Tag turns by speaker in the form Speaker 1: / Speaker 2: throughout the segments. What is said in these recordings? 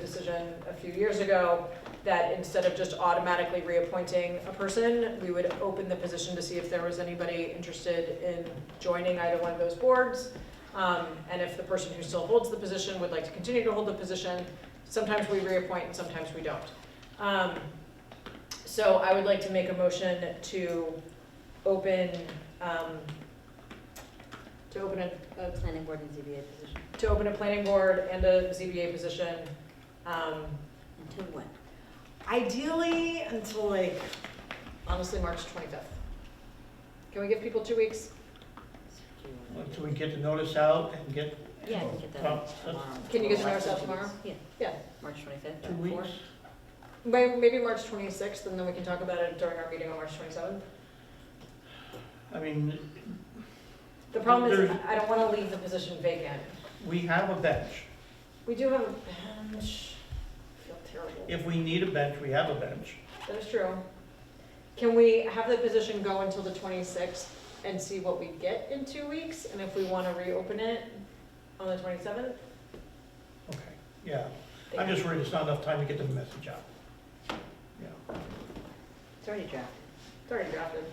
Speaker 1: decision a few years ago that instead of just automatically reappointing a person, we would open the position to see if there was anybody interested in joining either one of those boards. Um, and if the person who still holds the position would like to continue to hold the position, sometimes we reappoint and sometimes we don't. Um, so I would like to make a motion to open, um, to open a, a
Speaker 2: Planning board and ZBA position.
Speaker 1: to open a planning board and a ZBA position. Um,
Speaker 2: Until when?
Speaker 3: Ideally, until like,
Speaker 1: honestly, March 25th. Can we give people two weeks?
Speaker 2: Do you wanna
Speaker 4: Once
Speaker 2: do-
Speaker 4: we get the notice out and get
Speaker 2: Yeah, I can get that
Speaker 4: Well,
Speaker 2: out tomorrow.
Speaker 1: Can you get the notice out tomorrow?
Speaker 2: Yeah.
Speaker 1: Yeah.
Speaker 2: March twenty-fifth?
Speaker 4: two weeks,
Speaker 1: May- Maybe March 26th, and then we can talk about it during our meeting on March 27th.
Speaker 4: I mean,
Speaker 1: The problem is,
Speaker 4: There's-
Speaker 1: I don't want to leave the position vacant.
Speaker 4: we have a bench.
Speaker 1: We do have a bench. I feel terrible.
Speaker 4: If we need a bench, we have a bench.
Speaker 1: That is true. Can we have the position go until the 26th and see what we get in two weeks? And if we want to reopen it on the 27th?
Speaker 4: Okay, yeah. I'm just worried it's not enough time to get the message out. Yeah,
Speaker 2: It's already drafted.
Speaker 1: It's already drafted.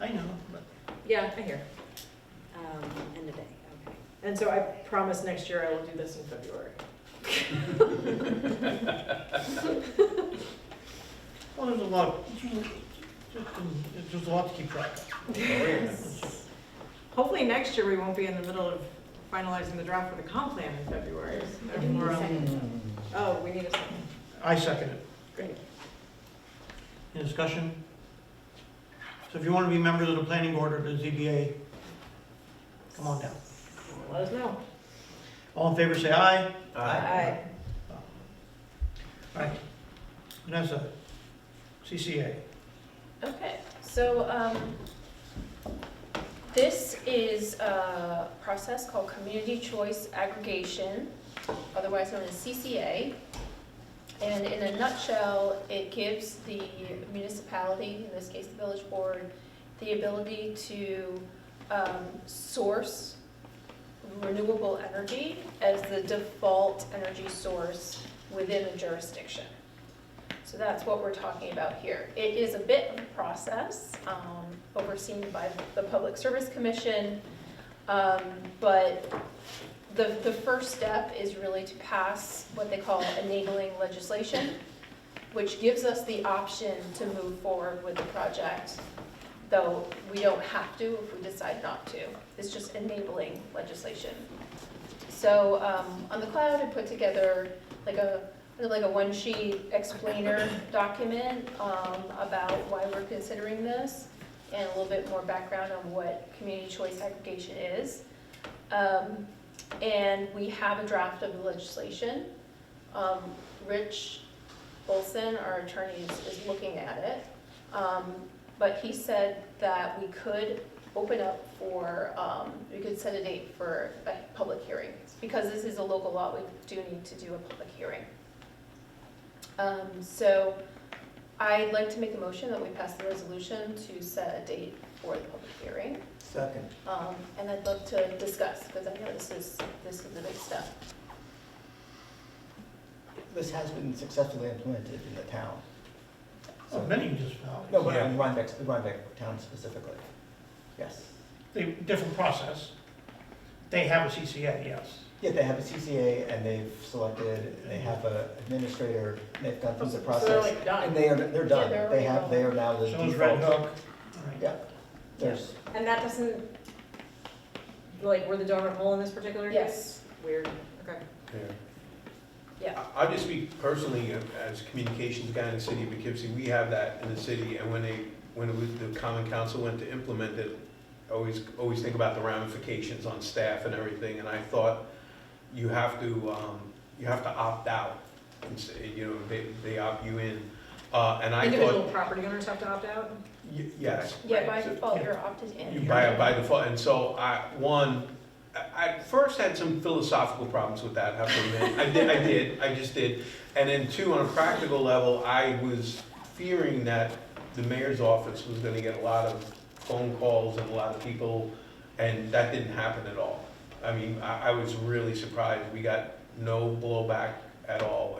Speaker 4: I know, but
Speaker 1: Yeah, I hear.
Speaker 2: Um, end of day, okay.
Speaker 1: And so I promise next year I will do this in February.
Speaker 4: Well, there's a lot, just- there's a lot to keep track of.
Speaker 1: Hopefully next year we won't be in the middle of finalizing the draft for the comp plan in February.
Speaker 2: I need a second.
Speaker 1: Oh, we need a second.
Speaker 4: I second it.
Speaker 1: Great.
Speaker 4: Any discussion? So if you want to be members of the planning board or the ZBA, come on down.
Speaker 1: Let us know.
Speaker 4: All in favor, say aye.
Speaker 1: Aye.
Speaker 4: All Oh. right. Vanessa, CCA.
Speaker 5: Okay, so um, this is a process called Community Choice Aggregation, otherwise known as CCA. And in a nutshell, it gives the municipality, in this case the village board, the ability to um, source renewable energy as the default energy source within a jurisdiction. So that's what we're talking about here. It is a bit of a process um, overseen by the Public Service Commission, um, but the, the first step is really to pass what they call enabling legislation, which gives us the option to move forward with the project, though we don't have to if we decide not to. It's just enabling legislation. So um, on the cloud, I put together like a kind of like a one-sheet explainer document um, about why we're considering this, and a little bit more background on what community choice aggregation is. Um, And we have a draft of the legislation. Um, Rich Olson, our attorney, is- is looking at it. Um, But he said that we could open up for, um, we could set a date for a public hearing. Because this is a local law, we do need to do a public hearing. Um, so I'd like to make a motion that we pass the resolution to set a date for the public hearing.
Speaker 4: Second.
Speaker 5: Um, and I'd love to discuss, because I know this is, this is the big step.
Speaker 6: This has been successfully implemented in the town.
Speaker 4: Oh, many municipalities.
Speaker 6: No, but in Rhinebeck, the Rhinebeck town specifically. Yes.
Speaker 4: They, different process. They have a CCA, yes.
Speaker 6: Yeah, they have a CCA and they've selected, they have a administrator, and they've gone through the
Speaker 1: So they're
Speaker 6: process.
Speaker 1: like
Speaker 6: And
Speaker 1: done.
Speaker 6: they are, they're
Speaker 5: they're
Speaker 6: done. They
Speaker 5: already
Speaker 6: have,
Speaker 5: done.
Speaker 6: they are now the
Speaker 4: So is Red
Speaker 6: default.
Speaker 4: Hook. All right.
Speaker 6: Yeah. There's,
Speaker 1: And that doesn't, like, we're the donut hole in this particular case?
Speaker 5: Yes.
Speaker 1: Weird, okay.
Speaker 5: Yeah.
Speaker 7: I- I'll just speak personally uh, as communications guy in the city of Poughkeepsie, we have that in the city, and when they, when it was, the common council went to implement it, always, always think about the ramifications on staff and everything, and I thought you have to, um, you have to opt out, and say, you know, they, they opt you in, uh, and I
Speaker 1: Individual
Speaker 7: thought,
Speaker 1: property owners have to opt out?
Speaker 7: y- yes,
Speaker 5: Yeah, by default, you're opted
Speaker 7: you
Speaker 5: in.
Speaker 7: by, by default, and so I, one, I I first had some philosophical problems with that, I have to admit, I did, I did, I just did. And then two, on a practical level, I was fearing that the mayor's office was gonna get a lot of phone calls and a lot of people, and that didn't happen at all. I mean, I, I was really surprised, we got no blowback at all,